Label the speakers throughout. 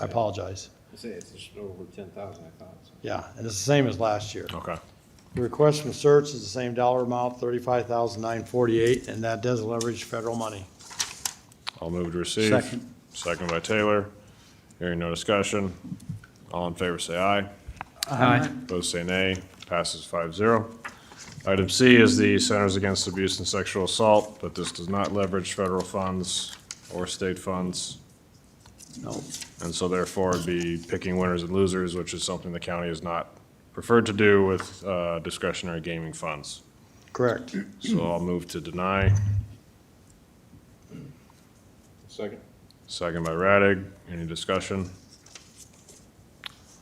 Speaker 1: I apologize.
Speaker 2: I say it's just over ten thousand, I thought. so.
Speaker 1: Yeah, and it's the same as last year.
Speaker 3: Okay.
Speaker 1: The Request from search is the same dollar amount, thirty-five thousand nine forty-eight, and that does leverage federal money.
Speaker 3: I'll move to receive.
Speaker 1: Second.
Speaker 3: Second by Taylor. Hearing no discussion. All in favor, say aye.
Speaker 4: Aye.
Speaker 3: Opposed, say nay. Passes five zero. Item C is the Centers Against Abuse and Sexual Assault, but this does not leverage federal funds or state funds.
Speaker 1: No,
Speaker 3: And so therefore it'd be picking winners and losers, which is something the county has not preferred to do with uh, discretionary gaming funds.
Speaker 1: correct.
Speaker 3: So I'll move to deny.
Speaker 2: Second?
Speaker 3: Second by Radig. Any discussion?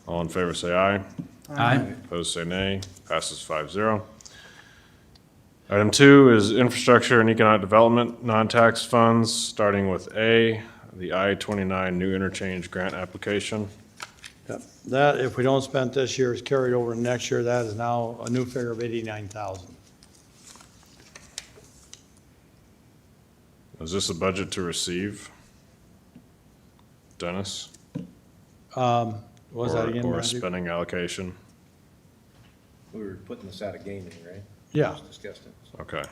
Speaker 3: All in favor, say aye.
Speaker 4: Aye.
Speaker 3: Opposed, say nay. Passes five zero. Item two is infrastructure and economic development, non-tax funds, starting with A, the I twenty-nine new interchange grant application.
Speaker 1: Yep. That, if we don't spend this year, is carried over to next year. That is now a new figure of eighty-nine thousand.
Speaker 3: Is this a budget to receive? Dennis?
Speaker 1: What was
Speaker 3: Or-
Speaker 1: that again?
Speaker 3: Or a
Speaker 1: Randy?
Speaker 3: spending allocation?
Speaker 2: We were putting this out of gaming, right?
Speaker 5: Oh.
Speaker 1: Yeah.
Speaker 2: Discussed it.
Speaker 3: Okay.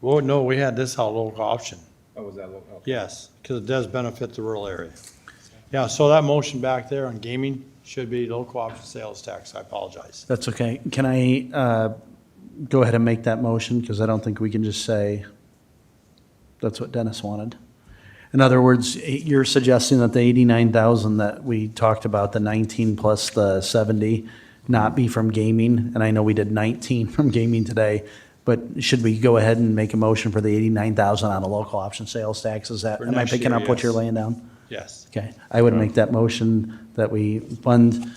Speaker 1: Well, no, we had this out local option.
Speaker 2: Oh, was that local?
Speaker 1: Yes, because it does benefit the rural area. Yeah, so that motion back there on gaming should be local option sales tax. I apologize.
Speaker 4: That's okay. Can I uh, go ahead and make that motion? Because I don't think we can just say, that's what Dennis wanted. In other words, eh, you're suggesting that the 89,000 that we talked about, the 19 plus the 70, not be from gaming? And I know we did 19 from gaming today, but should we go ahead and make a motion for the 89,000 on a local option sales tax? Is that,
Speaker 1: For
Speaker 4: am I
Speaker 1: next
Speaker 4: picking
Speaker 1: year,
Speaker 4: up what you're
Speaker 1: yes.
Speaker 4: laying down?
Speaker 1: Yes.
Speaker 4: Okay, I would make that motion that we fund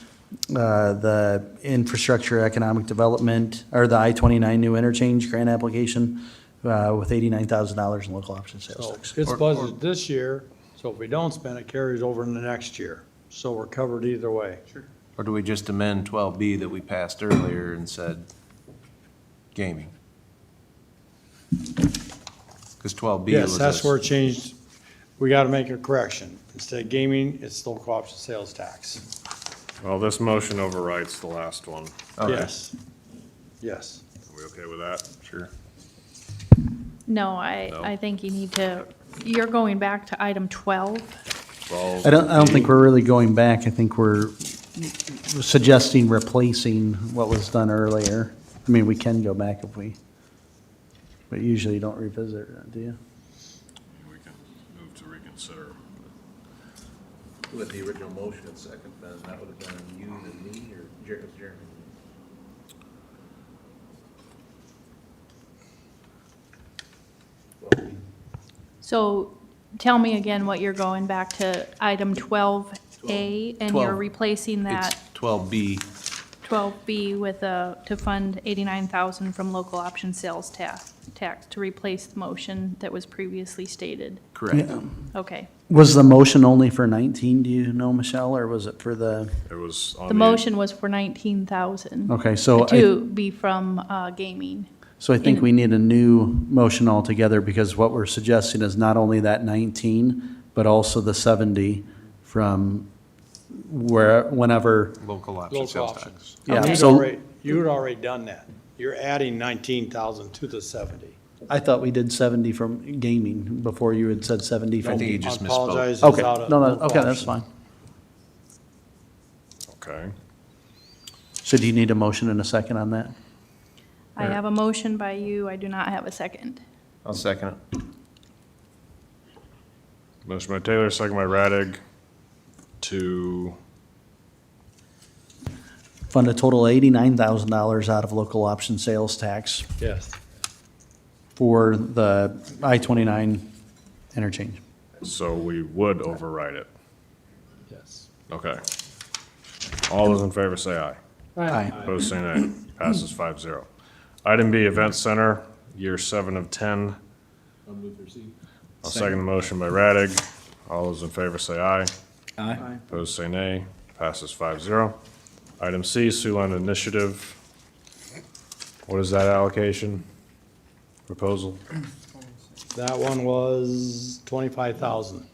Speaker 4: uh, the infrastructure economic development, or the I-29 new interchange grant application uh, with $89,000 in local option sales
Speaker 1: So
Speaker 4: tax.
Speaker 1: it's budgeted this year, so if we don't spend it, carries over in the next year. So we're covered either way.
Speaker 5: Or do we just amend 12B that we passed earlier and said gaming? Because 12B was.
Speaker 1: Yes, that's
Speaker 5: us-
Speaker 1: where it changed. We got to make a correction. Instead of gaming, it's local option sales tax.
Speaker 3: Well, this motion overrides the last one.
Speaker 5: Okay.
Speaker 1: Yes. Yes.
Speaker 3: Are we okay with that? Sure.
Speaker 6: No, I,
Speaker 3: No?
Speaker 6: I think you need to, you're going back to item 12.
Speaker 3: Twelve.
Speaker 4: I don't, I don't think we're really going back, I think we're suggesting replacing what was done earlier. I mean, we can go back if we, but usually you don't revisit, it, do you?
Speaker 3: We can move to reconsider.
Speaker 5: With the original motion and second, then that would have been you and me or Jer- Jeremy?
Speaker 6: So tell me again what you're going back to, item 12A, and you're
Speaker 5: Twelve.
Speaker 6: replacing
Speaker 5: It's
Speaker 6: that
Speaker 5: 12B.
Speaker 6: 12B with a, to fund 89,000 from local option sales tax, tax to replace the motion that was previously stated.
Speaker 5: Correct.
Speaker 6: Okay.
Speaker 4: Was the motion only for 19, do you know, Michelle, or was it for the?
Speaker 3: It was on the.
Speaker 6: The motion was for 19,000.
Speaker 4: Okay, so I-
Speaker 6: To be from uh, gaming.
Speaker 4: So I think
Speaker 6: In-
Speaker 4: we need a new motion altogether, because what we're suggesting is not only that 19, but also the 70 from where, whenever,
Speaker 5: Local option
Speaker 1: Local
Speaker 5: sales
Speaker 1: option.
Speaker 5: tax.
Speaker 4: yeah,
Speaker 6: Okay.
Speaker 1: You'd
Speaker 4: so
Speaker 1: already, you'd already done that. You're adding nineteen thousand to the seventy.
Speaker 4: I thought we did 70 from gaming before you had said 70
Speaker 5: I
Speaker 4: from.
Speaker 5: think you just
Speaker 1: I
Speaker 5: misspoke.
Speaker 1: apologize, it's
Speaker 4: Okay,
Speaker 1: out of
Speaker 4: no, no,
Speaker 1: local
Speaker 4: okay, that's
Speaker 1: option.
Speaker 4: fine.
Speaker 3: Okay.
Speaker 4: So do you need a motion and a second on that?
Speaker 6: I have a motion by you, I do not have a second.
Speaker 5: I'll second it.
Speaker 3: Motion by Taylor, second by Radig to,
Speaker 4: Fund a total of $89,000 out of local option sales tax
Speaker 1: Yes.
Speaker 4: for the I-29 interchange.
Speaker 3: so we would override it.
Speaker 1: Yes.
Speaker 3: Okay. All those in favor say aye.
Speaker 4: Aye.
Speaker 3: Opposed, say nay. Passes five zero. Item B, Event Center, year seven of ten.
Speaker 2: I'll move to receive.
Speaker 3: I'll second the motion by Radig. All those in favor say aye.
Speaker 2: Aye.
Speaker 3: Opposed, say nay. Passes five zero. Item C, Siouxland Initiative. What is that allocation? Proposal?
Speaker 1: That one was twenty-five thousand.